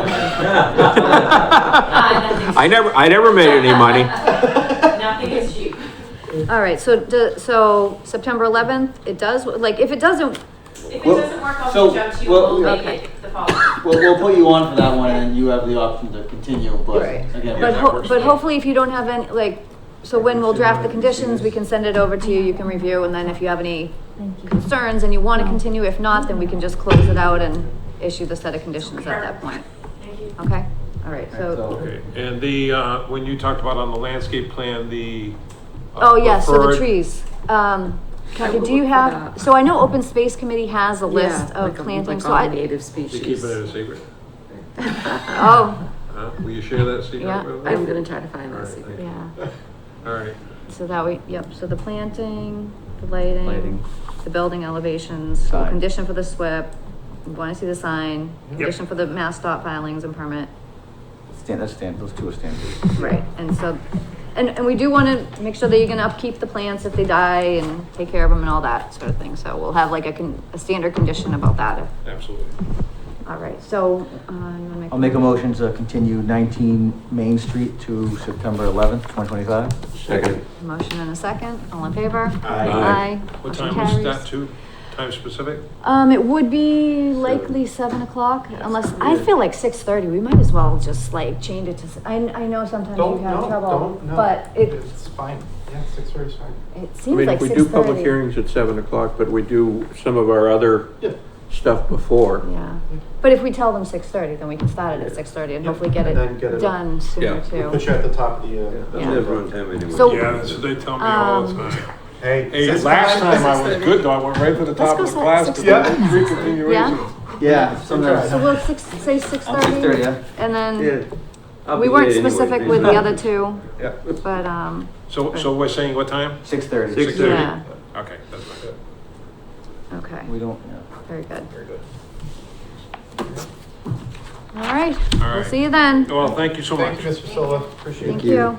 I never, I never made any money. Nothing is cheap. All right, so, do- so September eleventh, it does, like, if it doesn't, If it Well, doesn't work, I'll so, reach out to you, well, we'll make okay. it the following. We'll, we'll put you on for that one and then you have the option to continue, but Right. again. but, that ho- works. but hopefully if you don't have any, like, so when we'll draft the conditions, we can send it over to you, you can review, and then if you have any concerns and you wanna continue, if not, then we can just close it out and issue the set of conditions at that point, Thank you. okay? All right, so, So, Okay, and the, uh, when you talked about on the landscape plan, the. uh, oh, yes, so the preferred- trees, um, I Kathy, will do you look for have, that. so I know Open Space Committee has a list Yeah, of like a- plantings, so like all I. Native You keep it species. a secret? Oh, Huh? Will you share that secret? Yeah, with me? I'm gonna try to find All that right, secret. thank you. yeah, All right, so that we, yep, so the planting, the lighting, Lighting. the building elevations, the Sign. condition for the SWIP, we wanna see the sign, Yep. condition for the mass stop filings and permit. Stand, that's stand, those two are standard. Right. And so, and, and we do wanna make sure that you're gonna upkeep the plants if they die and take care of them and all that sort of thing, so we'll have like a con, a standard condition about that. absolutely. All right, so, uh, you wanna make? I'll make a motion to continue 19 Main Street to September 11th, 2025. Second. Motion and a second, all in favor? Aye. Aye. What Motion time was carries. that too? Time specific? Um, it would be likely seven o'clock, unless, I feel like six thirty, we might as well just like change it to, s- I, I know sometimes you Don't, have no, trouble. don't, no. But it, It's fine, yeah, six thirty's fine. it I seems mean, like if we six do public thirty. hearings at seven o'clock, but we do some of our other Yeah. stuff before. Yeah, but if we tell them six thirty, then we can start it at six thirty and Yeah, hopefully get and then get it it- done Yeah. sooner Put too. you at the top of the, uh. Yeah. So- Yeah, that's what they tell me all the Um, time. Hey. Hey, six last o'clock. time I was good though, I went right to the top go of the si- class six to thirty. the three continuations. Yeah, So sometimes. we'll six, say six I'll take 30, thirty, yeah. and then, we weren't specific with the other two, but, um, So, so we're saying what time? 6:30. 6:30. yeah, Okay, that's my good. okay, We don't, yeah. very good. Very good. All right, we'll right. see you then, Well, thank you so much. Thank you, Mr. Silva, appreciate thank it. you.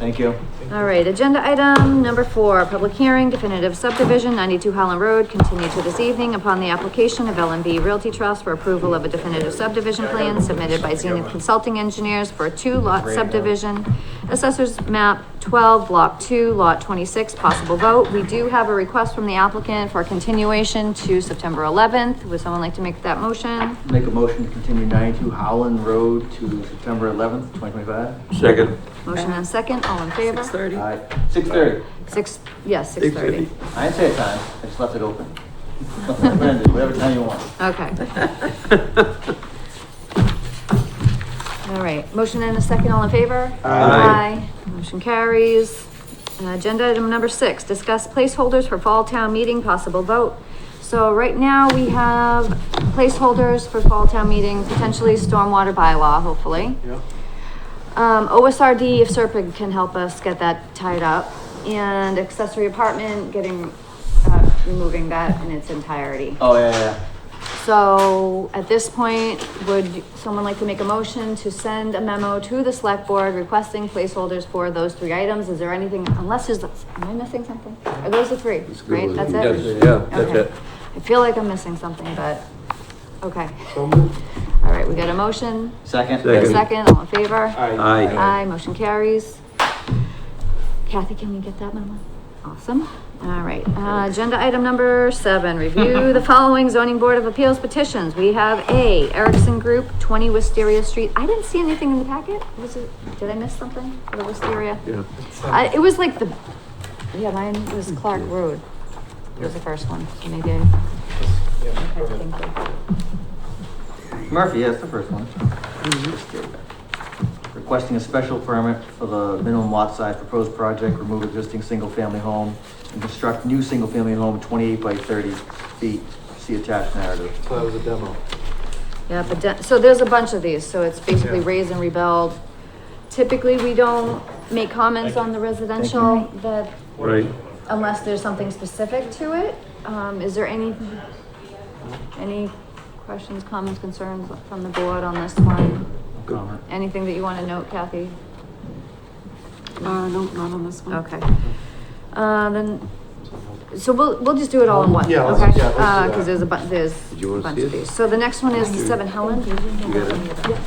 Thank you. All right, agenda item number four, public hearing definitive subdivision, ninety-two Holland Road, continued to this evening upon the application of LMB Realty Trust for approval of a definitive subdivision plan submitted by Zenith Consulting Engineers for a two-lot subdivision. Assessors map twelve, block two, lot twenty-six, possible vote. We do have a request from the applicant for continuation to September eleventh. Would someone like to make that motion? Make a motion to continue 92 Howland Road to September 11th, 2025. Second. Motion and second, all in Six favor? thirty. Aye. 6:30. Six, yes, six thirty. I didn't say a time, I just left it open. Brandon, whatever time you want. Okay. All right, motion and a second, all in favor? Aye. Aye. Motion carries. Uh, Agenda item number six, discuss placeholders for fall town meeting, possible vote. So right now, we have placeholders for fall town meeting, potentially stormwater bylaw, hopefully. Yeah. Um, OSRD, if Serpent can help us get that tied up, and accessory apartment, getting, uh, removing that in its entirety. Oh, yeah, yeah, yeah. So at this point, would someone like to make a motion to send a memo to the select board requesting placeholders for those three items? Is there anything, unless there's, am I missing something? Are those the three, right? That's it? Yes, Yeah, that's Okay. it. I feel like I'm missing something, but, okay. So moved. All right, we got a motion, Second? a Second. second, all in favor? Aye. Aye, motion carries. Kathy, can we get that memo? Awesome. All right, uh, agenda item number seven, review the following zoning board of appeals petitions. We have A, Erickson Group, twenty Wisteria Street. I didn't see anything in the packet. Was it, did I miss something for the Wisteria? Yeah. I, it was like the, yeah, mine was Clark Road. It was the first one, so maybe I, Yeah, okay, go ahead. thank you. Murphy, yes, the first one. Requesting a special permit for the minimum lot size proposed project, remove existing single-family home, and construct new single-family home twenty-eight by thirty feet. See attached narrative. So that was a demo. Yeah, but, de- so there's a bunch of these, so it's basically Yeah. raise and rebuild. Typically, we don't make comments on the residential that, Right. unless there's something specific to it. Um, is there any, any questions, comments, concerns from the board on this one? Comment. Anything that you wanna note, Kathy? Uh, no, not on this one. Okay. Uh, then, so we'll, we'll just do it all in one, Um, Yeah, let's- okay? yeah, let's do Uh, that. cause there's a bu- there's a you wanna bunch see of it? these. So the next one is the Seven Helen. You got it?